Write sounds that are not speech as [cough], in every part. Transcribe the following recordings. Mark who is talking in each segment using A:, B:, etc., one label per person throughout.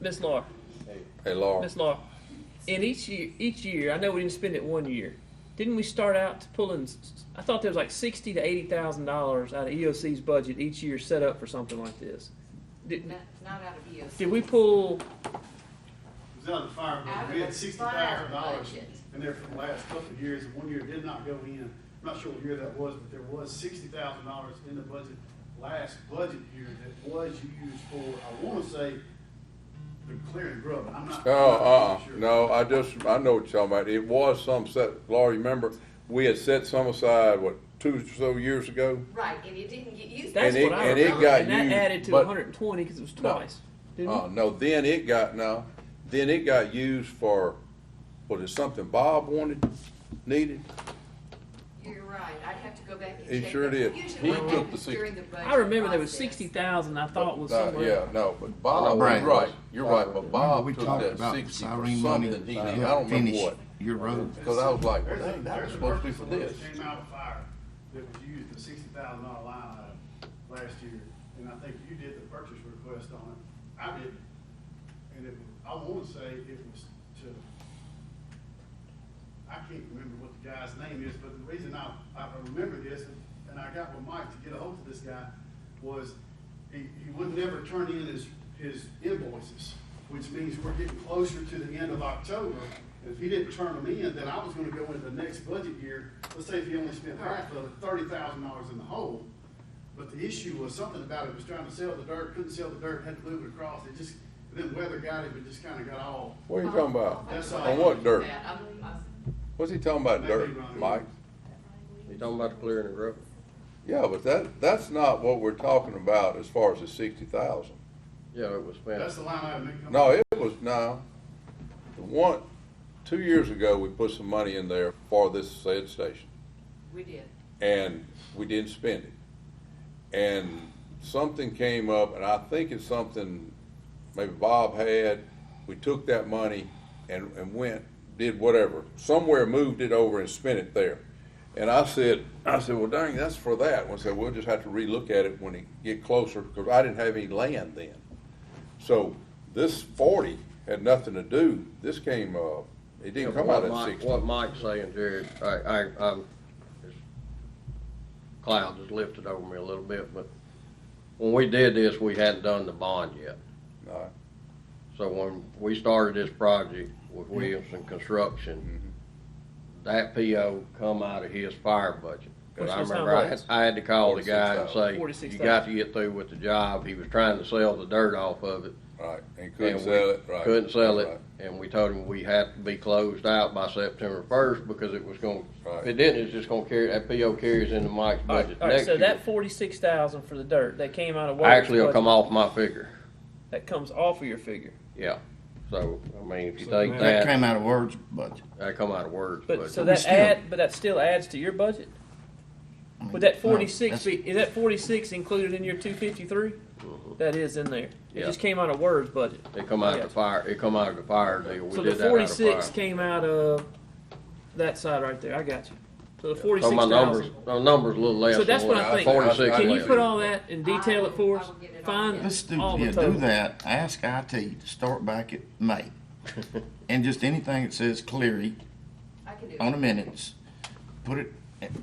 A: Miss Laura,
B: Hey, Laura.
A: Miss Laura, in each year, each year, I know we didn't spend it one year. Didn't we start out pulling? s- s- I thought there was like sixty to eighty thousand dollars out of EOC's budget each year set up for something like this. Did,
C: Not, not out of EOC.
A: did we pull?
D: It was out of the fire budget, we had sixty thousand dollars in there for the last couple of years, and one year it did not go in. I'm not sure what year that was, but there was sixty thousand dollars in the budget, last budget year that was used for, I wanna say, the clearing grub, I'm not. I'm not
B: Oh, uh,
D: sure.
B: no, I just, I know what you're talking about. It was some set, Laura, you remember, we had set some aside, what, two or so years ago?
C: Right, and it didn't get used.
A: That's
B: And it-
A: what I
B: and it
A: remember.
B: got
A: and that
B: used,
A: added to one
B: but-
A: hundred and twenty because it was
B: No.
A: twice. Didn't
B: Uh, no, then it got, no, then it got used for, was it something Bob wanted, needed?
C: You're right, I'd have to go back and
B: He
C: check.
B: sure
C: that.
B: did.
C: Usually
B: He
C: what
B: took
C: happens
B: the
C: during the budget
A: we? I remember there was
C: process-
A: sixty thousand. I thought was
B: Uh,
A: somewhere.
B: Yeah, no, but Bob,
E: Right.
B: you're right, you're right, but
E: Remember,
B: Bob
E: we
B: took
E: talked
B: that
E: about
B: sixty for
E: Cyrene money.
B: something that he
E: to
B: did, I
E: help
B: don't remember
E: finish
B: what.
E: your road.
B: Because I was like,
D: There's
B: dang,
D: a-
B: that was
D: there's a
B: supposed to be for
D: purchase order
B: this.
D: that Came out of fire that was used, the sixty thousand dollar line item last year, and I think you did the purchase request on it. I did, and it, was- I wanna say it was to, I can't remember what the guy's name is, but the reason I, I remember this, and I got with Mike to get a hold of this guy, was he, he would never turn in his, his invoices, which means we're getting closer to the end of October. If he didn't turn them in, then I was gonna go into the next budget year, let's say if he only spent half of thirty thousand dollars in the hole. But the issue was something about it, was trying to sell the dirt, couldn't sell the dirt, had to move it across, it just, then weather got it, but just kinda got all,
B: What are you talking about?
D: That's all.
B: On what dirt?
C: That, I'm- I'm-
B: What's he talking about
D: Maybe
B: dirt,
D: wrong.
B: Mike?
F: You talking about the clearing and grub?
B: Yeah, but that, that's not what we're talking about as far as the sixty thousand.
F: Yeah, it was
D: that's
F: spent.
D: the line item. that come
B: No,
D: up.
B: it was, no. The One, two years ago, we put some money in there for this said station,
C: We did.
B: and we didn't spend it. And something came up, and I think it's something maybe Bob had, we took that money and, and went, did whatever, somewhere moved it over and spent it there. And I said, I said, well, dang, that's for that. And I said, we'll just have to relook at it when it get closer, because I didn't have any land then. So this forty had nothing to do, this came, uh, it didn't come out
F: What
B: of
F: Mike-
B: sixty.
F: What Mike's saying, Jared, I, I, I'm, this cloud has lifted over me a little bit, but when we did this, we hadn't done the bond yet.
B: No.
F: So when we started this project with Williamson Construction,
B: Mm-hmm.
F: that PO come out of his fire budget. But
A: Which
F: I
A: was how
F: remember I had,
A: much?
F: I had to call the guy and say,
A: 46,000.
F: you got to get through with the job. He was trying to sell the dirt off of it.
B: Right, and couldn't
F: and we
B: sell it, right.
F: Couldn't sell
B: Right.
F: it, and we told him we had to be closed out by September first because it was gonna,
B: Right.
F: if it didn't, it's just gonna carry, that PO carries into Mike's
A: All right,
F: budget
A: all right,
F: next
A: so
F: year.
A: that forty-six thousand for the dirt that came out of Walter's
F: Actually, it'll
A: budget,
F: come off my figure,
A: That comes off of your figure.
F: yeah. So, I mean, if you
E: So
F: take
E: That
F: that,
E: came out of words budget.
F: that come out of words,
A: But
F: but
A: so
E: we
A: that
E: still-
A: add, but that still adds to your budget? Would that
E: No,
A: forty-six
E: that's-
A: be, is that forty-six included in your two fifty-three?
E: Mm-hmm.
A: That is in there. It
F: Yeah.
A: just came out of Word's budget.
F: it come out of the fire, it come out of the fire deal, we
A: So the
F: did that out of
A: forty-six
F: fire.
A: came out of that side right there. I got you. So the
F: So
A: forty-six
F: my numbers,
A: thousand.
F: my numbers a little less.
A: So that's
F: than
A: what I think.
F: Forty-six.
A: Can you
F: left.
A: put all that and detail
C: I
A: it for
C: will- I
A: us?
C: will get it all
A: Find
C: together.
E: Let's do,
A: all
E: yeah,
A: the
E: do
A: totals.
E: that, ask IT to start back at May. And just anything that says Cleary
C: I can do
E: on
C: it.
E: the minutes, put it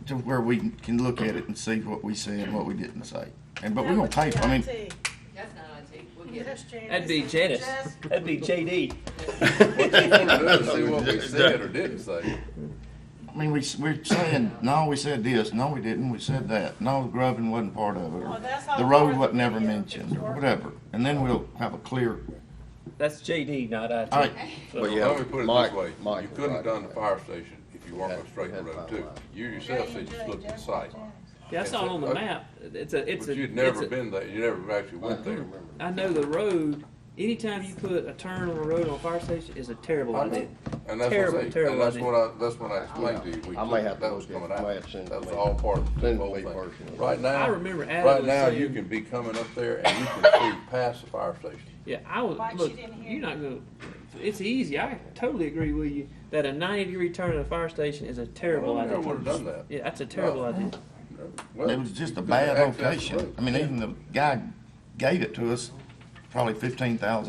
E: to where we can look at it and see what we said and what we didn't say. And, but we're gonna tape, I mean,
C: That's not IT, we'll get it.
A: That'd be Janice. [laughs] That'd be JD.
B: [laughs] See what we said or didn't say.
E: I mean, we, s- we're saying, no, we said this, no, we didn't, we said that, no, the grubbing wasn't part of it, or
G: Well, Oh, that's how
E: the road
G: far
E: wasn't
G: the
E: ever
G: video
E: mentioned,
G: is
E: or
G: working.
E: whatever. And then we'll have a clear,
A: That's JD, not IT.
E: all right,
B: But
F: yeah,
B: let me put it
F: Mike-
B: this way,
F: Mike
B: you
F: was
B: couldn't
F: right
B: have done the
F: about
B: fire station if you weren't
F: Had-
B: on straight
F: had
B: road
F: five
B: too.
F: lines.
B: You yourself said you looked at the site,
A: Yeah, I saw it on the
B: Okay.
A: map. It's a, it's a.
B: but you'd
A: it's
B: never
A: a-
B: been there, you never actually
F: I
B: went
F: do
B: there.
F: remember.
A: I know the road. Anytime you put a turn on a road on a fire station is a terrible
B: I know.
A: idea.
B: And that's
A: Terrible,
B: what I say,
A: terrible
B: and that's
A: idea.
B: what I, that's what I explained to you. We
F: I may
B: took-
F: have to
B: that was
F: look
B: coming
F: at it.
B: out.
F: I may have to send it
B: That
F: to
B: was
F: me.
B: all part of
F: Send it
B: the
F: to
B: whole
F: me
B: thing.
F: personally.
B: Right now.
A: I remember Adam
B: Right
A: was
B: now, you
A: saying-
B: can be coming up there and you can see past the fire station.
A: Yeah, I was
G: Mike, she
A: look.
G: didn't hear
A: You're
G: you.
A: not gonna. It's easy. I totally agree with you that a 90 degree turn at a fire station is a terrible
B: I never
A: idea.
B: would've done that.
A: Yeah, that's a terrible
B: No.
A: idea.
B: Well,
E: it was just a
B: you couldn't
E: bad
B: access the
E: location.
B: road.
E: I mean, even the guy gave it to us, probably fifteen thousand